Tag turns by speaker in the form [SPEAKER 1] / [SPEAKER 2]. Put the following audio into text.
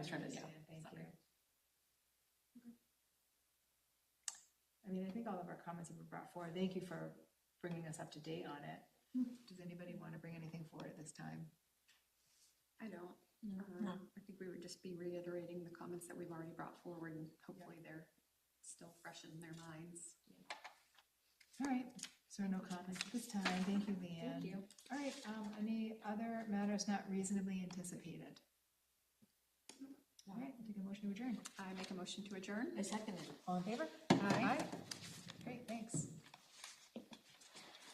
[SPEAKER 1] was trying to- yeah,
[SPEAKER 2] Understand, Thank
[SPEAKER 1] sorry.
[SPEAKER 2] you. I mean, I think all of our comments have been brought forward. Thank you for bringing us up to date on it. Does anybody want to bring anything forward at this time?
[SPEAKER 3] I don't. Um, I think we would just be reiterating the comments that we've already brought forward and hopefully they're still fresh in their minds.
[SPEAKER 2] All right, so no comments at this time. Thank you, Leanne.
[SPEAKER 3] Thank you.
[SPEAKER 2] All right, um, any other matters not reasonably anticipated? All right, I'll take a motion to adjourn.
[SPEAKER 3] I make a motion to adjourn.
[SPEAKER 1] I second it.
[SPEAKER 2] All in favor?
[SPEAKER 3] Aye.
[SPEAKER 2] Aye.